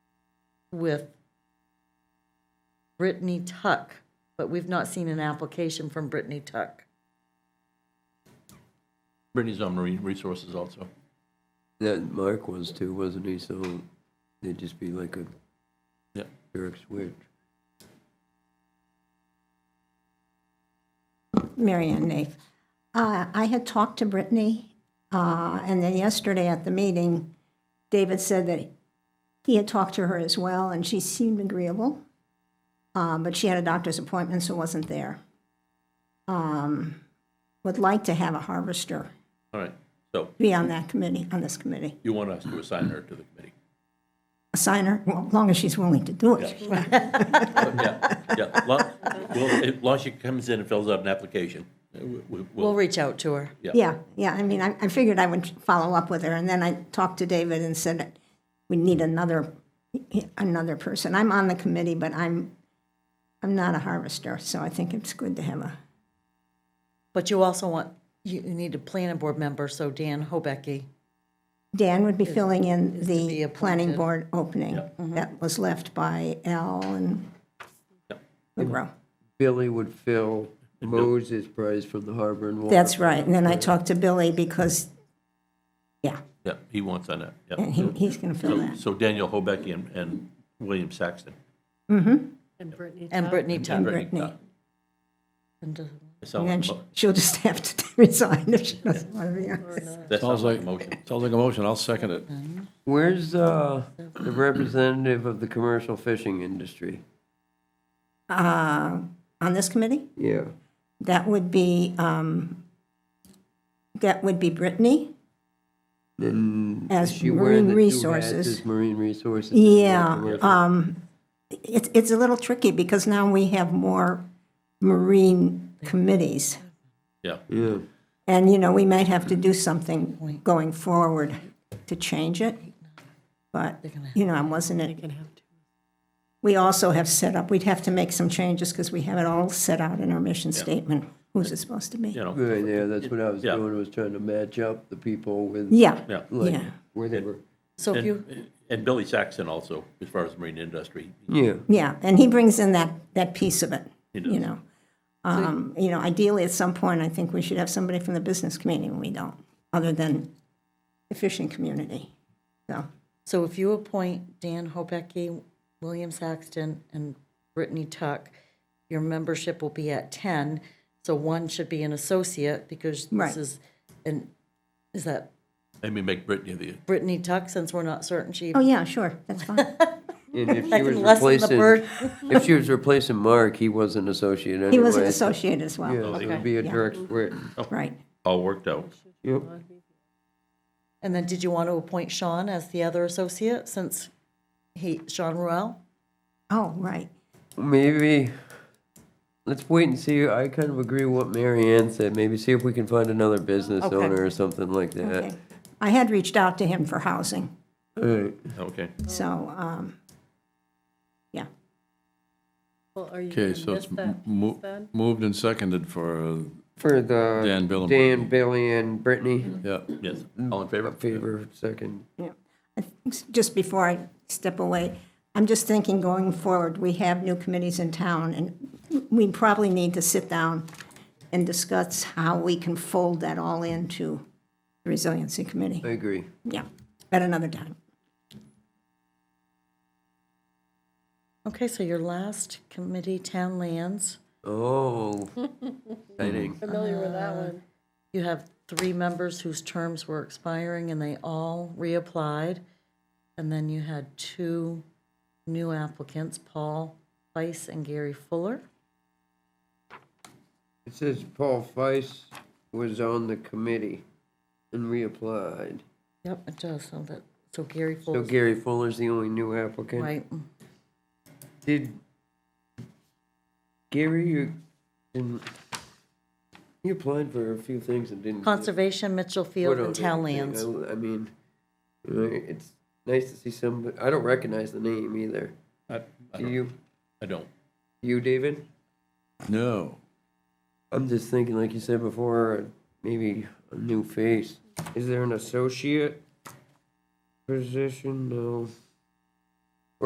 with Brittany Tuck, but we've not seen an application from Brittany Tuck. Brittany's on marine resources also. That Mark was too, wasn't he? So it'd just be like a Yeah. jerk switch. Mary Ann Naif. Uh, I had talked to Brittany, uh, and then yesterday at the meeting, David said that he had talked to her as well, and she seemed agreeable, uh, but she had a doctor's appointment, so wasn't there. Um, Would like to have a harvester All right, so be on that committee, on this committee. you want us to assign her to the committee? Assign her, well, as long as she's willing to do it. Yeah, yeah. Lo- Well, if Lashie comes in and fills out an application, uh, we- we- We'll we'll, reach out to her. yeah. Yeah, yeah, I mean, I, I figured I would follow up with her, and then I talked to David and said, we need another, another person. I'm on the committee, but I'm, I'm not a harvester, so I think it's good to have a, But you also want, you you need a planning board member, so Dan Hobecky. Dan would be filling in be the appointed. Mm-hmm. planning board opening that was left by Al and Monroe. Billy would fill Moses Prize from the Harbor and Water. That's right, and then I talked to Billy because, yeah, Yeah, he wants on that, yeah. and he, he's gonna So- fill that. So Daniel Hobecky and, and William Saxton. And Brittany And Brittany Tuck. And Brittany. Tuck. It And sounds then like she- a mo- she'll just have to resign if she doesn't wanna be on this. that sounds Sounds like like, a motion. sounds like a motion, I'll second it. Where's uh, the representative of the commercial fishing industry? uh, on this committee, Yeah. that would be, um, that would be Brittany And is as she wearing marine the two hats resources. as Marine resources. and Yeah, commercial? um, it's, it's a little tricky because now we have more marine committees. Yeah, Yeah. And, you know, we might have to do something going forward to change it. But, you know, I wasn't, in- we also have set up, we'd have to make some changes because we have it all set out in our mission statement, who's it supposed to be? you know, Good, yeah, that's what I was Yeah. doing, was trying to match up the people with, Yeah. yeah. like, Yeah. where they were. So if you, And, and Billy Saxton also, as far as marine industry, Yeah. Yeah, and he brings in that, that piece of it, you know. Um, You know, ideally, at some point, I think we should have somebody from the business community, and we don't, other than the fishing community. So, so if you appoint Dan Hobecky, William Saxton, and Brittany Tuck, your membership will be at ten, so one should be an associate, because this Right. is, and, is that maybe make Brittany the, Brittany Tuck, since we're not certain she, oh, yeah, sure, that's fine. And if I she was can lessen the replacing, burden. if she was replacing Mark, he was an associate anyway. He was an so- associate as well, Yeah, it would be a direct switch. right. all worked out. Yep. And then did you want to appoint Sean as the other associate since he, Sean Ruel? Oh, right. Maybe, let's wait and see. I kind of agree with what Mary Ann said. Maybe see if we can find another business Okay. owner or something like Okay. that. I had reached out to him for housing, Alright. Okay, so, um, yeah. Well, are you Okay, going so to miss it's that, mo- then? moved and seconded for, uh, For the. Dan Bill and Dan, Billy, and Brittany. yeah. yes, all in favor? Favor, second. Yeah. I think Just before I step away, I'm just thinking going forward, we have new committees in town, and we probably need to sit down and discuss how we can fold that all into the Resiliency Committee. I agree. Yeah, at another time. Okay, so your last committee, town lands, Oh, exciting. Familiar with that one. you have three members whose terms were expiring and they all reapplied. And then you had two new applicants, Paul Weiss and Gary Fuller. It says Paul Feiss was on the committee and reapplied. Yep, it does, so that, so Gary So Fuller, Gary Fuller's the only new applicant? right, Did Gary, you, didn't, you applied for a few things and didn't. get- Conservation, Mitchell What Field, and else? Town Lands. I I mean, you know, it's nice to see somebody, I don't recognize the name either. I, I Do don't, you, I don't. you, David? No. I'm just thinking, like you said before, maybe a new face. Is there an associate position? No.